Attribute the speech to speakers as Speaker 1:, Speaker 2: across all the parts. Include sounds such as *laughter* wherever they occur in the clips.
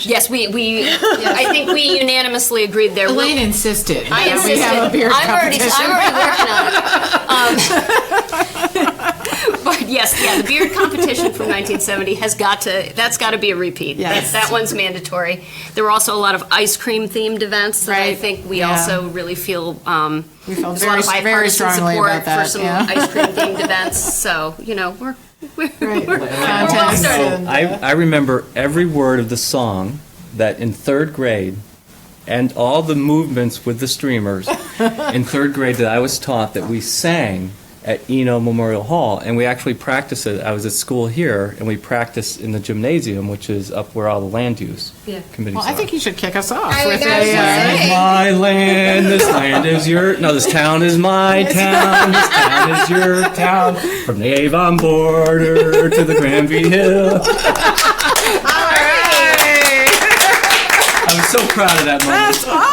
Speaker 1: Yes, we, we, I think we unanimously agreed there. will-
Speaker 2: Elaine insisted.
Speaker 1: I
Speaker 2: that We have a
Speaker 1: insisted.
Speaker 2: beer
Speaker 1: I'm already, I'm already
Speaker 2: competition.
Speaker 1: working on it. Um,
Speaker 2: *laughs*
Speaker 1: But yes, yeah, the beard competition from 1970 has got to, that's got to be a repeat. That,
Speaker 2: Yes.
Speaker 1: that one's mandatory. There were also a lot of ice cream themed events that I
Speaker 2: Right,
Speaker 1: think we
Speaker 2: yeah.
Speaker 1: also really feel, um,
Speaker 2: We felt
Speaker 1: there's a lot of
Speaker 2: very- very
Speaker 1: bipartisan
Speaker 2: strongly
Speaker 1: support
Speaker 2: about
Speaker 1: for
Speaker 2: that,
Speaker 1: some
Speaker 2: yeah.
Speaker 1: ice cream themed events. So, you know, we're, *laughs* we're,
Speaker 2: Right.
Speaker 1: we're well
Speaker 2: Contest.
Speaker 1: started.
Speaker 2: And,
Speaker 3: I, I remember every word of the song that in third grade and all the movements with the streamers in third grade that I was taught that we sang at Eno Memorial Hall. And we actually practiced it. I was at school here and we practiced in the gymnasium, which is up where all the land use
Speaker 1: Yeah.
Speaker 3: committees
Speaker 2: Well, I
Speaker 3: are.
Speaker 2: think you should kick us off
Speaker 4: I
Speaker 2: with
Speaker 4: was gonna
Speaker 2: a, uh,
Speaker 4: say.
Speaker 3: My land, this land is your. No, this town is my town. This town is your town. From the Avon border to the Granby Hill. I was so proud of that
Speaker 5: *laughs*
Speaker 3: moment.
Speaker 2: *laughs* That's awesome.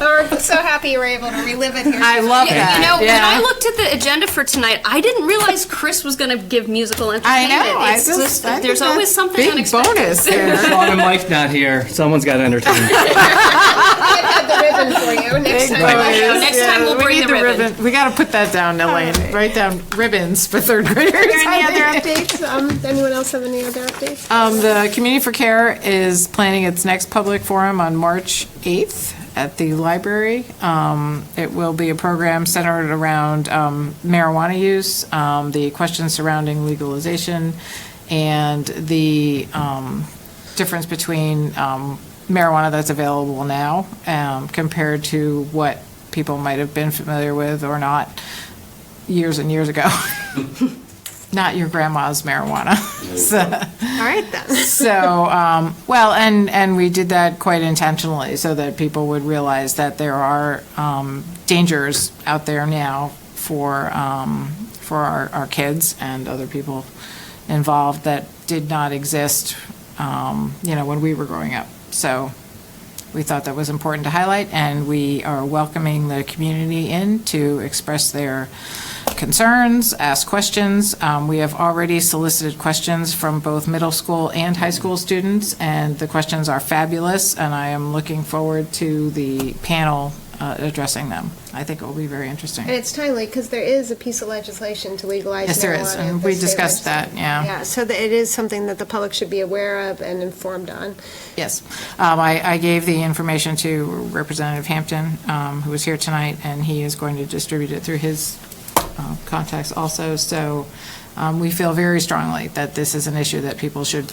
Speaker 4: We're so happy you were able to relive it here.
Speaker 2: I love
Speaker 1: Yeah,
Speaker 2: that.
Speaker 1: you know, when
Speaker 2: Yeah.
Speaker 1: I looked at the agenda for tonight, I didn't realize Chris was going to give musical entertainment.
Speaker 2: know, I
Speaker 1: It's
Speaker 2: just-
Speaker 1: just-
Speaker 2: I think
Speaker 1: there's
Speaker 2: that's
Speaker 1: always something
Speaker 2: big
Speaker 1: unexpected. *laughs*
Speaker 2: bonus there.
Speaker 3: Sean and Mike not here. Someone's got to entertain. me.
Speaker 4: I have the ribbon for you next
Speaker 2: Big
Speaker 4: time.
Speaker 2: bonus.
Speaker 1: Next time we'll
Speaker 2: we
Speaker 1: bring
Speaker 2: need
Speaker 1: the ribbon.
Speaker 2: We got to put that down, Elaine. Write down ribbons for third graders.
Speaker 4: Any
Speaker 2: I think.
Speaker 4: other updates? Um, anyone else have any other updates?
Speaker 2: Um, the Community for Care is planning its next public forum on March 8th at the library. Um, it will be a program centered around um, marijuana use, um, the questions surrounding legalization, and the um, difference between um, marijuana that's available now um, compared to what people might have been familiar with or not years and years ago. *laughs* Not your grandma's marijuana. *laughs* So-
Speaker 4: All right then.
Speaker 2: so, um, well, and, and we did that quite intentionally so that people would realize that there are um, dangers out there now for, um, for our, our kids and other people involved that did not exist, um, you know, when we were growing up. So we thought that was important to highlight, and we are welcoming the community in to express their concerns, ask questions. Um, We have already solicited questions from both middle school and high school students, and the questions are fabulous, and I am looking forward to the panel uh, addressing them. I think it will be very
Speaker 4: And
Speaker 2: interesting.
Speaker 4: it's timely because there is a piece of legislation to legalize marijuana.
Speaker 2: Yes, there is,
Speaker 4: at
Speaker 2: and
Speaker 4: the
Speaker 2: we
Speaker 4: state
Speaker 2: discussed that,
Speaker 4: legislature.
Speaker 2: yeah.
Speaker 4: Yeah, so that it is something that the public should be aware of and informed on.
Speaker 2: Yes. Um, I, I gave the information to Representative Hampton, um, who was here tonight, and he is going to distribute it through his uh, contacts also. So um, we feel very strongly that this is an issue that people should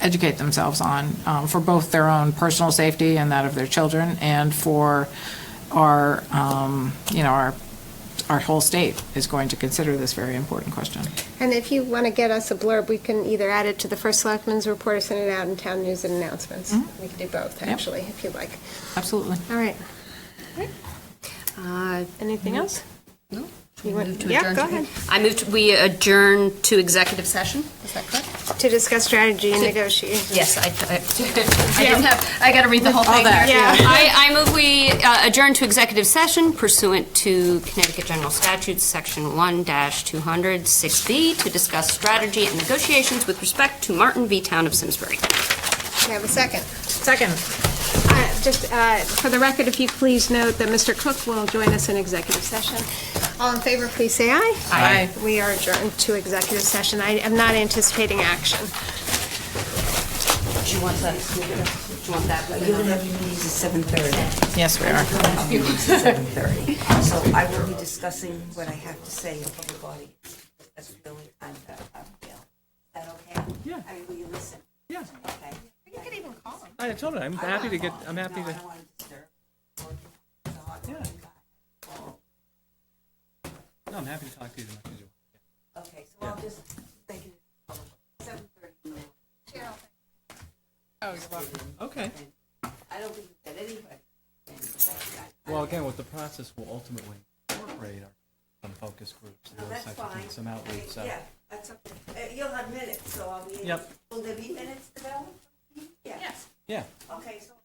Speaker 2: educate themselves on um, for both their own personal safety and that of their children and for our, um, you know, our, our whole state is going to consider this very important question.
Speaker 4: And if you want to get us a blurb, we can either add it to the first selectman's report or send it out in town news and announcements.
Speaker 2: Mm-hmm.
Speaker 4: We can do both, actually, if you'd like.
Speaker 2: Absolutely.
Speaker 4: All right.
Speaker 1: Uh,
Speaker 4: Anything
Speaker 2: Mm-hmm.
Speaker 4: else?
Speaker 1: no.
Speaker 4: You want-
Speaker 1: Move to
Speaker 4: yeah,
Speaker 1: adjourn
Speaker 4: go
Speaker 1: to-
Speaker 4: ahead.
Speaker 1: I moved, we adjourn to executive session, is that correct?
Speaker 4: To discuss strategy and negotiate.
Speaker 1: Yes, I, *laughs* I I didn't have, I got to read the whole thing here.
Speaker 2: that,
Speaker 4: yeah.
Speaker 1: I, I move we uh, adjourn to executive session pursuant to Connecticut General Statutes, Section 1-200, 6B, to discuss strategy and negotiations with respect to Martin v. Town of Simsbury.
Speaker 4: Can I have a second?
Speaker 2: Second.
Speaker 4: Uh, Just uh, for the record, if you please note that Mr. Cook will join us in executive session. All in favor, please say aye.
Speaker 2: Aye.
Speaker 4: We are adjourned to executive session. I am not anticipating action.
Speaker 1: Do you want that? Do you want that?
Speaker 5: You're gonna have your meetings at seven thirty.
Speaker 2: Yes, we are.
Speaker 5: Meetings at seven thirty. So I will be discussing what I have to say in public audience. That's the only time that I'm available. Is that okay? Yeah. I mean, will you listen?
Speaker 3: Yeah.
Speaker 5: Okay.
Speaker 4: You could even call him.
Speaker 3: I told her I'm happy to get. I'm happy
Speaker 5: No, I
Speaker 3: to.
Speaker 5: don't want to disturb. So I'll call you back.
Speaker 3: No, I'm happy to talk to you. as much as you want.
Speaker 5: Okay, so I'll just, thank you. Seven thirty.
Speaker 3: Oh, Okay.
Speaker 5: I don't think that anybody.
Speaker 3: Well, again, what the process will ultimately incorporate are some focus groups, and
Speaker 5: That's fine.
Speaker 3: some outreach. So.
Speaker 5: Yeah, that's okay. Uh, You'll have minutes, so I'll be.
Speaker 3: Yep.
Speaker 5: Will there be minutes developed? Yes.
Speaker 3: Yeah.
Speaker 5: Okay, so